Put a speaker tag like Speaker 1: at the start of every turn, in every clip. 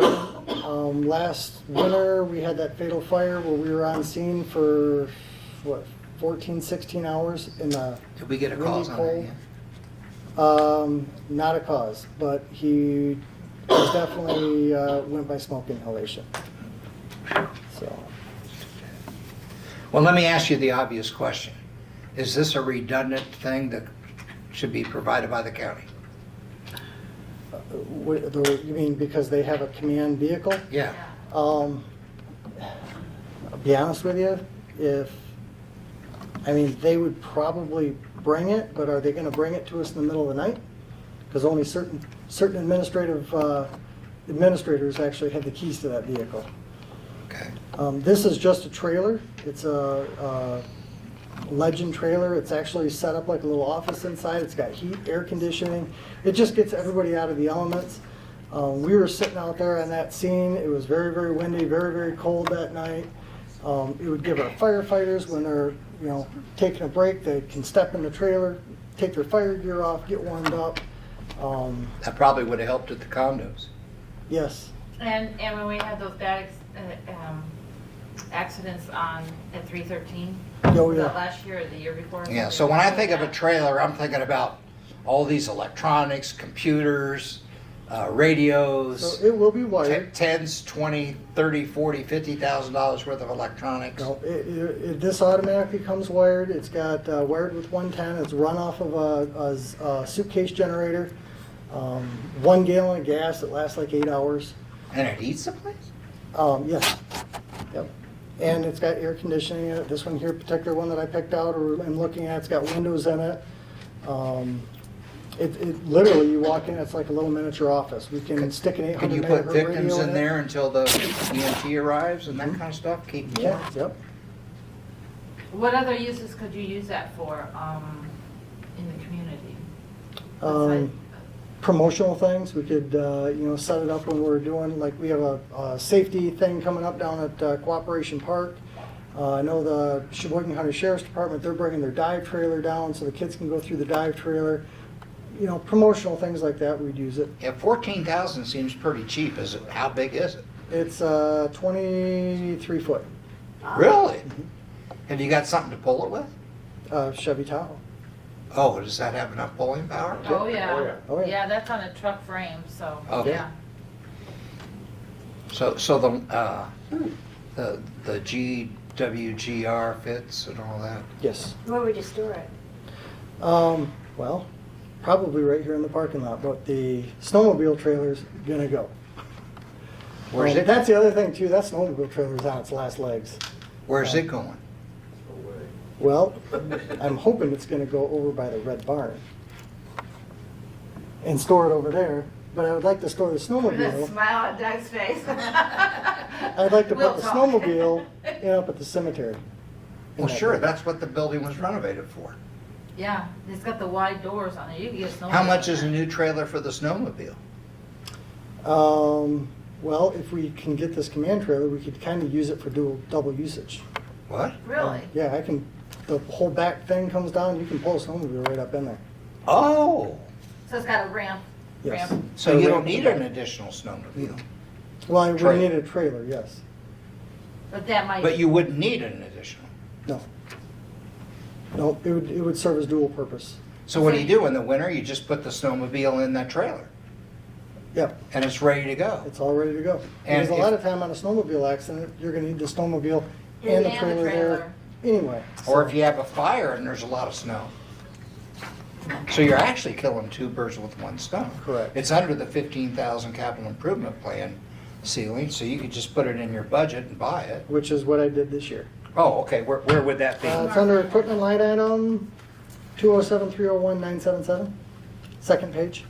Speaker 1: department. Um, last winter, we had that fatal fire where we were on scene for, what, 14, 16 hours in the
Speaker 2: Did we get a
Speaker 1: Really
Speaker 2: call on that
Speaker 1: cold.
Speaker 2: yet?
Speaker 1: Um, not a cause, but he was definitely uh, went by smoke inhalation. So,
Speaker 2: Well, let me ask you the obvious question. Is this a redundant thing that should be provided by the county?
Speaker 1: uh, what, the, you mean because they have a command vehicle?
Speaker 2: Yeah.
Speaker 1: Um, I'll be honest with you, if I mean they would probably bring it, but are they going to bring it to us in the middle of the night? Because only certain certain administrative uh, administrators actually have the keys to that vehicle.
Speaker 2: Okay.
Speaker 1: Um, this is just a trailer. It's a, a legend trailer. It's actually set up like a little office inside. It's got heat, air conditioning. It just gets everybody out of the elements. Um, we were sitting out there on that scene. It was very, very windy, very, very cold that night. Um, it would give our firefighters when they're, you know, taking a break, they can step in the trailer, take their fire gear off, get warmed up. Um,
Speaker 2: That probably would have helped at the condos.
Speaker 1: yes.
Speaker 3: And, and when we had those bad ex- uh, um, accidents on, at 313?
Speaker 1: Oh,
Speaker 3: Was
Speaker 1: yeah.
Speaker 3: that last year or the year before?
Speaker 2: Yeah, so when I think of a trailer, I'm thinking about all these electronics, computers, uh, radios,
Speaker 1: So it will be
Speaker 2: te-
Speaker 1: wired.
Speaker 2: tens, twenty, thirty, forty, fifty thousand dollars worth of electronics.
Speaker 1: No, it, it, it- this automatically comes wired, it's got uh, wired with 110, it's run off of a- a, s- a suitcase generator, um, one gallon of gas, it lasts like eight hours.
Speaker 2: And it eats the place?
Speaker 1: Um, yes, yep. And it's got air conditioning in it, this one here, particular one that I picked out or am looking at, it's got windows in it. Um, It, it, literally, you walk in, it's like a little miniature office, we can stick an 800
Speaker 2: Can you put
Speaker 1: megahertz radio
Speaker 2: victims in
Speaker 1: it.
Speaker 2: there until the EMT arrives and that kind of stuff? Keep them
Speaker 1: Mm-hmm. Yeah,
Speaker 2: warm?
Speaker 1: yep.
Speaker 3: What other uses could you use that for, um, in the community?
Speaker 1: Um, promotional things. We could, uh, you know, set it up when we're doing, like, we have a, a safety thing coming up down at uh, Cooperation Park. Uh, I know the Sheboygan County Sheriff's Department, they're bringing their dive trailer down so the kids can go through the dive trailer. You know, promotional things like that, we'd use it.
Speaker 2: Yeah, fourteen thousand seems pretty cheap. Is it, how big is it?
Speaker 1: It's, uh, twenty-three foot,
Speaker 2: Ah. Really? Have you got something to pull it with?
Speaker 1: uh, Chevy Tahoe.
Speaker 2: Oh, does that have enough pulling power?
Speaker 3: Oh,
Speaker 4: Oh,
Speaker 3: yeah.
Speaker 4: yeah.
Speaker 1: Oh, yeah.
Speaker 3: Yeah, that's on a truck frame, so,
Speaker 2: Okay.
Speaker 3: yeah.
Speaker 2: So, so the, uh, the, the GWGR fits and all that?
Speaker 1: Yes.
Speaker 5: Where would you store it?
Speaker 1: Um, well, probably right here in the parking lot, but the snowmobile trailer's gonna go.
Speaker 2: Where's
Speaker 1: Um,
Speaker 2: it,
Speaker 1: That's the other thing too, that snowmobile trailer's on its last legs.
Speaker 2: where's it going?
Speaker 1: Well, I'm hoping it's gonna go over by the red barn and store it over there, but I would like to store the
Speaker 3: The
Speaker 1: snowmobile.
Speaker 3: smile on Doug's face.
Speaker 1: I'd
Speaker 3: I'd
Speaker 1: like to put the snowmobile in up at the cemetery.
Speaker 2: Well, Oh, sure, that's what the building was renovated for.
Speaker 3: Yeah, it's got the wide doors on it, you can get a snowmobile.
Speaker 2: How much is a new trailer for the snowmobile?
Speaker 1: Um, well, if we can get this command trailer, we could kinda use it for dual, double usage. Um,
Speaker 2: What?
Speaker 3: Really?
Speaker 1: Yeah, I can, the whole back thing comes down, you can pull a snowmobile right up in there.
Speaker 2: Oh,
Speaker 3: So it's got a ramp?
Speaker 1: Yes.
Speaker 3: ramp.
Speaker 2: so you don't need an additional snowmobile,
Speaker 1: Well, I
Speaker 2: Trailer.
Speaker 1: would need a trailer, yes.
Speaker 3: But that might.
Speaker 2: but you wouldn't need an additional.
Speaker 1: No. No, it would, it would serve as dual purpose.
Speaker 2: So what do you do in the winter? You just put the snowmobile in that trailer
Speaker 1: Yep.
Speaker 2: and it's ready to go.
Speaker 1: It's all ready to go.
Speaker 2: And
Speaker 1: Because a
Speaker 2: if-
Speaker 1: lot of time on a snowmobile accident, you're gonna need the snowmobile and
Speaker 3: And
Speaker 1: the
Speaker 3: the
Speaker 1: trailer there
Speaker 3: trailer.
Speaker 1: anyway.
Speaker 2: Or
Speaker 1: so-
Speaker 2: if you have a fire and there's a lot of snow. So you're actually killing two birds with one stone.
Speaker 1: Correct.
Speaker 2: It's under the fifteen thousand capital improvement plan ceiling, so you could just put it in your budget and buy it.
Speaker 1: Which is what I did this year.
Speaker 2: Oh, okay, where, where would that be?
Speaker 1: Uh, it's under equipment line item, two oh seven, three oh one, nine seven seven, second page.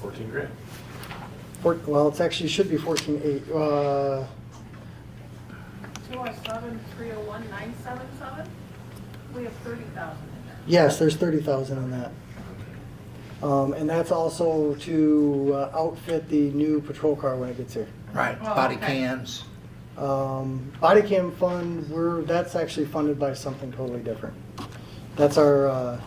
Speaker 4: Fourteen grand.
Speaker 1: Four, well, it's actually, should be fourteen eight, uh,
Speaker 6: 207, 301, 977? We have 30,000 in there.
Speaker 1: yes, there's thirty thousand on that. Um, and that's also to uh, outfit the new patrol car when it gets here.
Speaker 2: Right,
Speaker 3: Oh,
Speaker 2: body
Speaker 3: okay.
Speaker 2: cams.
Speaker 1: Um, body cam fund, we're, that's actually funded by something totally different. That's our, uh,